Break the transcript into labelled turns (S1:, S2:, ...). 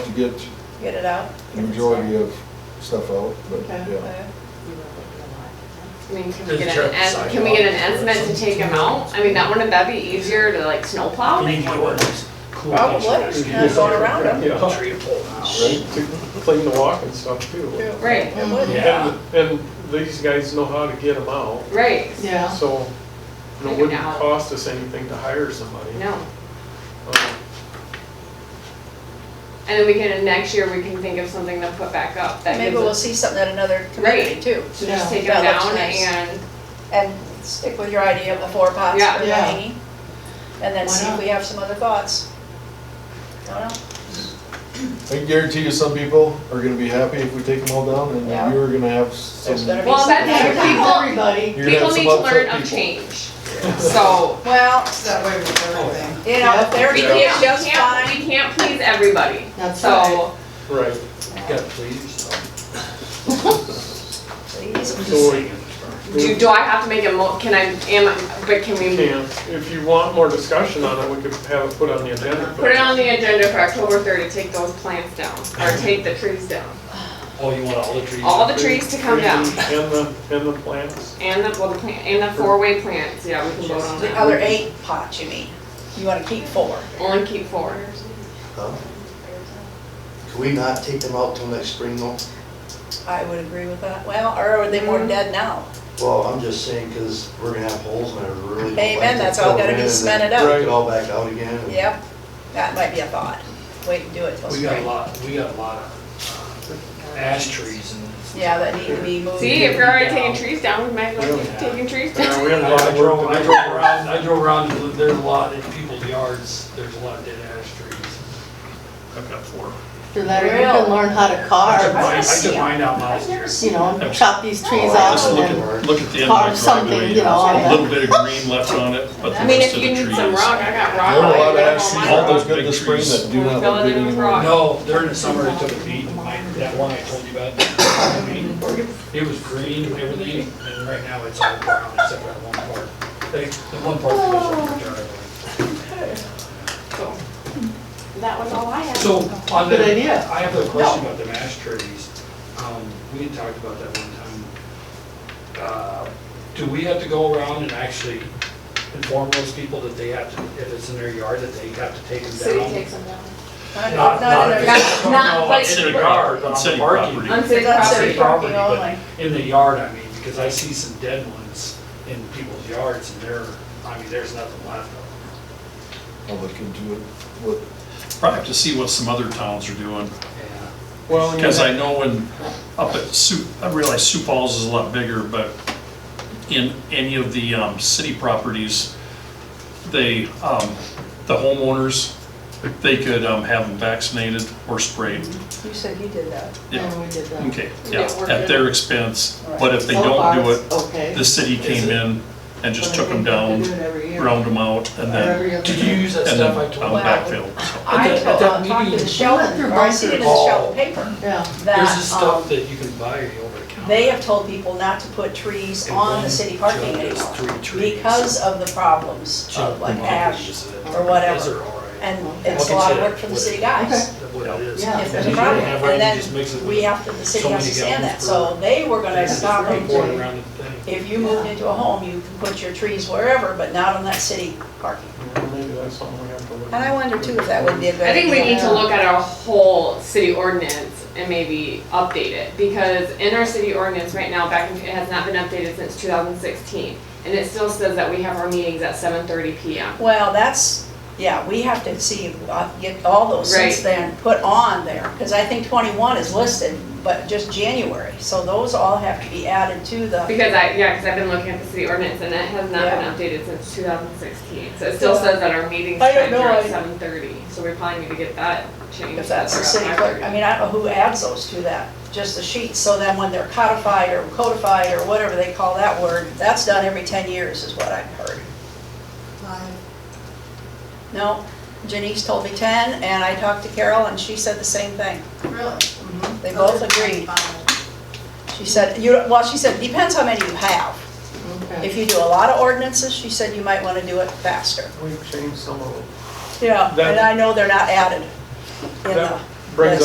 S1: to get
S2: Get it out?
S1: the majority of stuff out, but
S2: Okay.
S1: yeah.
S3: I mean, can we
S4: Does
S3: get
S4: Jeff
S3: an, es-
S4: decide
S3: can we get an
S4: how much
S3: estimate to
S4: it's
S3: take them out? I mean, that wouldn't that be easier to like snowplow?
S4: You need yours.
S2: Probably, kind of going around them.
S5: Yeah, right,
S4: Tree pole.
S5: to clean the walk and stuff too.
S3: Right,
S2: It would.
S4: Yeah.
S5: And, and these guys know how to get them out,
S3: right.
S2: Yeah.
S5: so, you know, it
S3: Figure it
S5: wouldn't
S3: out.
S5: cost us anything to hire somebody.
S3: No.
S5: Um,
S3: And then we can, next year, we can think of something to put back up that
S2: Maybe
S3: gives
S2: we'll
S3: us,
S2: see something at another community
S3: Right.
S2: too.
S3: so just take them
S2: That looks
S3: down
S2: nice.
S3: and,
S2: And stick with your idea of the four pots
S3: Yeah.
S2: for the
S6: Yeah.
S2: hanging. And then
S6: Why
S2: see if
S6: not?
S2: we have some other thoughts. Don't know.
S1: I can guarantee you, some people are gonna be happy if we take them all down, and
S2: Yeah.
S1: you're gonna have
S2: There's
S1: some,
S2: gonna be
S3: Well,
S2: some-
S3: that's-
S6: Everybody.
S1: you're gonna
S3: people
S1: have some
S3: need to
S1: upset
S3: learn of
S1: people.
S3: change. So,
S2: Well,
S6: That way with
S7: Oh,
S6: everything.
S2: you know, if they're
S3: we
S2: doing
S3: can't,
S2: it just
S3: we
S2: fine.
S3: can't, we can't please everybody.
S6: That's
S3: So,
S5: Right,
S4: Got please.
S5: so we-
S3: do, do I have to make a mo, can I, am, I- but can
S5: we
S3: we
S5: can, if you want more discussion on it, we could have it put on the agenda.
S3: put it on the agenda for October third to take those plants down, or take the trees down?
S4: Oh, you want all the trees?
S3: All the trees to come down,
S5: And the, and the plants.
S3: and the, well, the plant, and the four-way plants, yeah, we can vote on
S2: The
S3: that.
S2: other eight pots, you mean? You wanna keep four?
S3: Only keep four.
S8: Huh? Can we not take them out till next spring though?
S2: I would agree with that. Well, or are they more
S3: Mhm.
S2: dead now?
S8: Well, I'm just saying, because we're gonna have holes and I really don't like to
S2: Amen, that's all
S8: fill
S2: gotta
S8: in
S2: be
S8: and
S2: cemented
S8: then
S5: up.
S8: Take it all back out again. and-
S2: Yep, that might be a thought. Wait and do it till
S4: We got a
S2: spring.
S4: lot, we got a lot of uh, ash trees and. it's-
S2: Yeah, that need to be moved.
S3: See, if you're already taking trees down, we might as well keep taking trees down.
S5: Yeah, we had a lot
S4: I
S5: of
S4: drove,
S5: work
S4: I
S5: to
S4: drove
S5: do.
S4: around, I drove around, there's a lot in people's yards, there's a lot of dead ash trees.
S5: I've got four.
S6: For that, you can learn how to
S4: I took mine,
S6: carve,
S4: I took mine out last year.
S6: you know, chop these
S8: Oh,
S6: trees
S7: Just
S6: off
S7: look
S6: and
S7: at, look at the
S6: then
S7: end of
S6: carve
S7: the
S6: something,
S7: driveway,
S6: you know,
S7: a
S6: on
S7: little
S6: the,
S7: bit of green left on it, but
S3: I
S7: the
S3: mean,
S7: rest
S3: if
S7: of
S3: you
S7: the trees.
S3: need some rock, I got rock.
S1: There are a lot of
S3: I got
S1: ash trees
S3: all
S1: that
S3: mine.
S1: look good this spring that do not
S3: Fill it
S1: look good
S3: in with rock.
S1: anymore.
S4: No, during the summer, it took a beat, mine, that one I told you about, I mean, it was green, everything, and right now it's all brown except for that one part. They, the one part goes on the driveway.
S3: So, That was all I had.
S4: So, on the.
S6: Good idea.
S4: I have a question about the ash trees. Um, we had talked about that one time. Uh, Do we have to go around and actually inform those people that they have to, if it's in their yard, that they have to take them down?
S3: City takes them down.
S2: Not, not
S4: Not,
S2: in
S4: not,
S2: their.
S3: Not- not,
S4: not
S3: but-
S4: in the yard, on the
S7: City
S4: parking.
S7: property.
S3: On city
S2: That's
S3: property.
S2: it.
S4: City property,
S2: Only.
S4: but in the yard, I mean, because I see some dead ones in people's yards and they're, I mean, there's nothing left of them.
S1: I'll look into it, what,
S7: Probably have to see what some other towns are doing,
S4: Yeah.
S5: Well, you
S7: because
S5: know,
S7: I know when, up at Sioux, I realize Sioux Falls is a lot bigger, but in any of the, um, city properties, they, um, the homeowners, they could, um, have them vaccinated or sprayed.
S2: You said you did that.
S7: Yeah,
S6: and we did that.
S7: okay,
S3: Yeah,
S7: yeah,
S3: we're
S7: at
S3: good.
S7: their expense,
S2: All right.
S7: but if they
S6: So
S7: don't
S6: far,
S7: do
S6: it's
S7: it,
S6: Okay.
S7: the city came in and just took them down, ground them out, and
S6: Did
S7: then,
S4: Did you use that
S7: and
S4: stuff
S7: then
S4: I
S7: on
S4: told you?
S2: Wow.
S7: backfill, so.
S2: I
S4: At that- at that
S2: told- talked to the
S4: meeting-
S2: Sheldon, or I see it in the Sheldon paper,
S6: Yeah.
S4: There's
S2: that,
S4: this
S2: um,
S4: stuff that you can buy over the counter.
S2: they have told people not to put trees
S4: And
S2: on
S4: one
S2: the city parking
S4: jug is
S2: anymore.
S4: three trees.
S2: Because of the problems
S4: Jug
S2: of like
S4: one
S2: ash,
S4: is it.
S2: or whatever.
S4: Those are all right.
S2: and
S4: I'll
S2: it's a lot of
S4: consider
S2: work for the
S4: what
S2: city
S4: it-
S2: guys.
S4: What it is.
S6: Yeah.
S2: If there's a
S4: You
S2: problem,
S4: have right,
S2: and
S4: you just mix it
S2: then
S4: with-
S2: we have to, the city
S4: so
S2: has
S4: many
S2: to stand that,
S4: gallons
S2: so they were gonna
S4: It's
S2: stop
S4: really
S2: them.
S4: pouring
S2: from-
S4: around the thing.
S2: If you moved into a home, you can put your trees wherever, but not on that city parking.
S5: maybe that's something we have to look.
S2: And I wonder too if that would be a good
S3: I think we
S2: idea.
S3: need to look at our whole city ordinance and maybe update it, because in our city ordinance right now, back in, it has not been updated since two thousand sixteen. And it still says that we have our meetings at seven thirty PM.
S2: Well, that's, yeah, we have to see, uh, get all those since
S3: Right.
S2: then put on there, because I think twenty-one is listed, but just January, so those all have to be added to the,
S3: Because I, yeah, because I've been looking at the city ordinance and it has
S2: Yeah.
S3: not been updated since two thousand sixteen. So it still says that our meetings
S2: I don't
S3: times are at
S2: know, I-
S3: seven thirty, so we probably need to get that changed.
S2: if that's the
S3: around
S2: city clerk.
S3: 5:30.
S2: I mean, I don't know who adds those to that, just the sheets, so then when they're codified or codified or whatever they call that word, that's done every ten years is what I've heard. No, Janice told me ten, and I talked to Carol, and she said the same thing.
S6: Really?
S2: They
S3: Oh,
S2: both agreed. She said, you, well, she said, depends how many you have. If you do a lot of ordinances, she said you might want to do it faster.
S5: We've changed some of them.
S2: Yeah, and
S5: That-
S2: I know they're not added in the.
S5: That brings